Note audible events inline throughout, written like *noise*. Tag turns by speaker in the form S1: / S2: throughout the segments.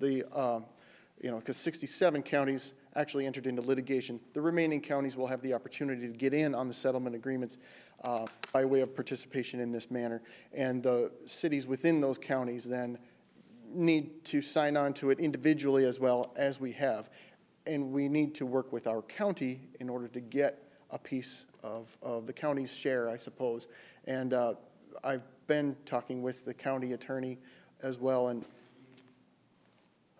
S1: the, um, you know, because 67 counties actually entered into litigation. The remaining counties will have the opportunity to get in on the settlement agreements uh, by way of participation in this manner. And the cities within those counties then need to sign on to it individually as well as we have. And we need to work with our county in order to get a piece of, of the county's share, I suppose. And uh, I've been talking with the county attorney as well and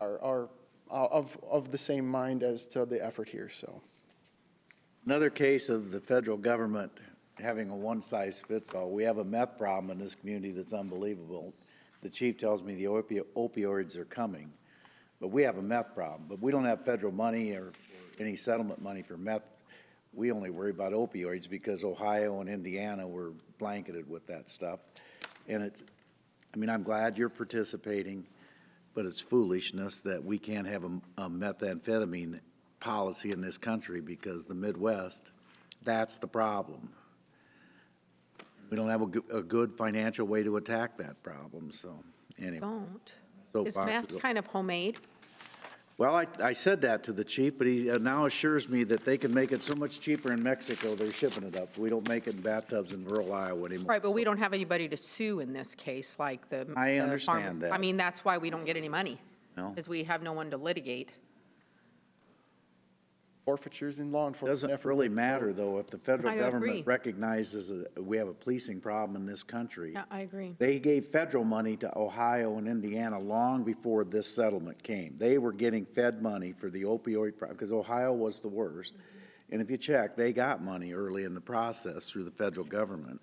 S1: are, are uh, of, of the same mind as to the effort here, so.
S2: Another case of the federal government having a one-size-fits-all. We have a meth problem in this community that's unbelievable. The chief tells me the opio- opioids are coming, but we have a meth problem. But we don't have federal money or any settlement money for meth. We only worry about opioids because Ohio and Indiana were blanketed with that stuff. And it's, I mean, I'm glad you're participating, but it's foolishness that we can't have a a methamphetamine policy in this country because the Midwest, that's the problem. We don't have a good, a good financial way to attack that problem, so anyway.
S3: Don't.
S2: So
S3: Is
S2: far,
S3: math
S2: so-
S3: kind of homemade?
S2: Well, I, I said that to the chief, but he uh, now assures me that they can make it so much cheaper in Mexico, they're shipping it up. We don't make it in bathtubs in rural Iowa anymore.
S3: Right, but we don't have anybody to sue in this case, like the.
S2: I
S3: the farm-
S2: understand that. Oh.
S3: I mean, that's why we don't get any money.
S2: No.
S3: Because we have no one to litigate.
S1: Forfeitures in law enforcement.
S2: Doesn't
S1: effort.
S2: really matter, though, if the federal
S3: I agree.
S2: government recognizes that we have a policing problem in this country.
S3: I agree.
S2: They gave federal money to Ohio and Indiana long before this settlement came. They were getting Fed money for the opioid, because Ohio was the worst. And if you check, they got money early in the process through the federal government.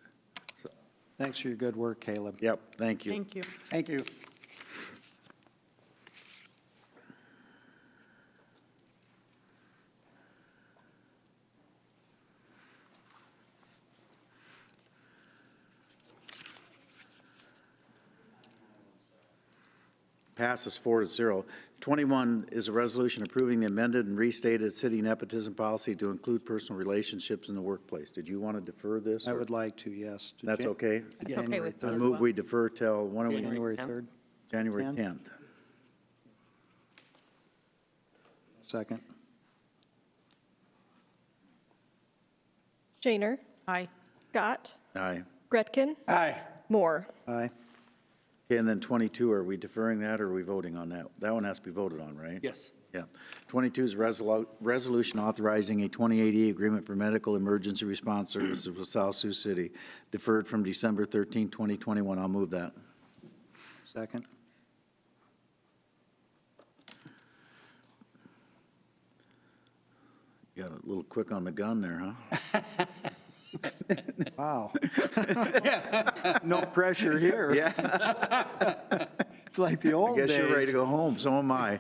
S4: Thanks for your good work, Caleb.
S2: Yep, thank you.
S3: Thank you.
S4: Thank you.
S2: Passes four to zero. Twenty-one is a resolution approving the amended and restated city nepotism policy to include personal relationships in the workplace. Did you want to defer this?
S4: I
S2: or-
S4: would like to, yes. to
S2: That's
S4: Jan-
S2: okay?
S3: okay
S4: January
S3: with
S2: I
S3: me.
S4: third-
S2: move we defer till, when are we,
S4: January 3rd,
S2: January
S4: Ten.
S2: tenth?
S4: second.
S5: Shaner.
S3: Aye.
S5: Scott.
S2: Aye.
S5: Gretkin.
S4: Aye.
S5: Moore.
S4: Aye.
S2: Okay, and then 22, are we deferring that or are we voting on that? That one has to be voted on, right? Yes. Yeah. 22 is resolu- resolution authorizing a 2080 agreement for medical emergency response services with South Sioux City, deferred from December 13, 2021. I'll move that.
S4: Second.
S2: You Got a little quick on the gun there, huh?
S4: *laughs* Wow. No pressure here. Yeah. It's like the
S2: I
S4: old days.
S2: guess you're ready to go home, so am I.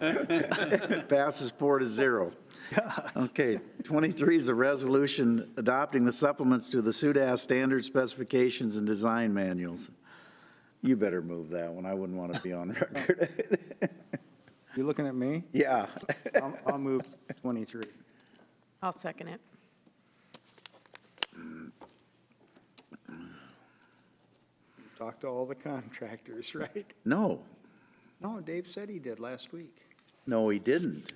S2: *laughs* Passes four to zero. Okay, 23 is a resolution adopting the supplements to the SUDAS standard specifications and design manuals. You better move that one, I wouldn't want to be on record.
S4: You looking at me?
S2: Yeah,
S4: I'll- I'll move 23.
S3: I'll second it.
S4: Talk to all the contractors, *laughs* right?
S2: no,
S4: No, Dave said he did last week.
S2: no, he didn't.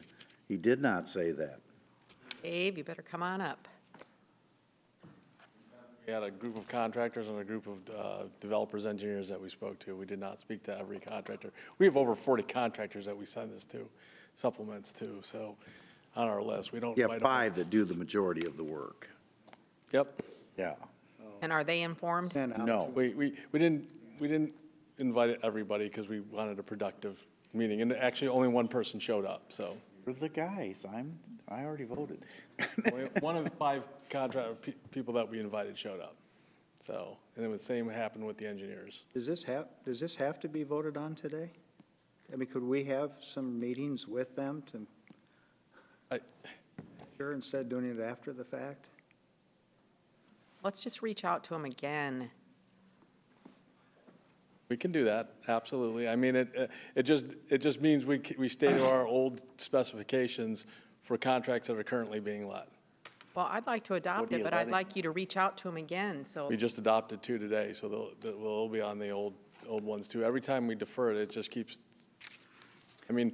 S2: He did not say that.
S3: Dave, you better come on up.
S6: We had a group of contractors and a group of uh, developers, engineers that we spoke to. We did not speak to every contractor. We have over 40 contractors that we send this to, supplements to, so on our list, we don't.
S2: You
S6: write
S2: have
S6: them-
S2: five that do the majority of the work.
S6: Yep.
S2: Yeah, Oh.
S3: And are they informed?
S4: And out.
S2: no.
S6: We, we, we didn't, we didn't invite everybody because we wanted a productive meeting, and actually, only one person showed up, so.
S2: For the guys, I'm, I already voted.
S6: Only One of the five contract, pe- people that we invited showed up, so, and then the same happened with the engineers.
S4: Does this have, does this have to be voted on today? I mean, could we have some meetings with them to,
S6: I-
S4: sure, instead of doing it after the fact?
S3: Let's just reach out to them again.
S6: We can do that, absolutely. I mean, it, it just, it just means we, c- we stay to our old specifications for contracts that are currently being let.
S3: Well, I'd like to adopt
S2: are
S3: it,
S2: you
S3: but I'd
S2: letting-
S3: like you to reach out to them again, so
S6: We just adopted two today, so they'll, they'll be on the old, old ones too. Every time we defer it, it just keeps, I I mean,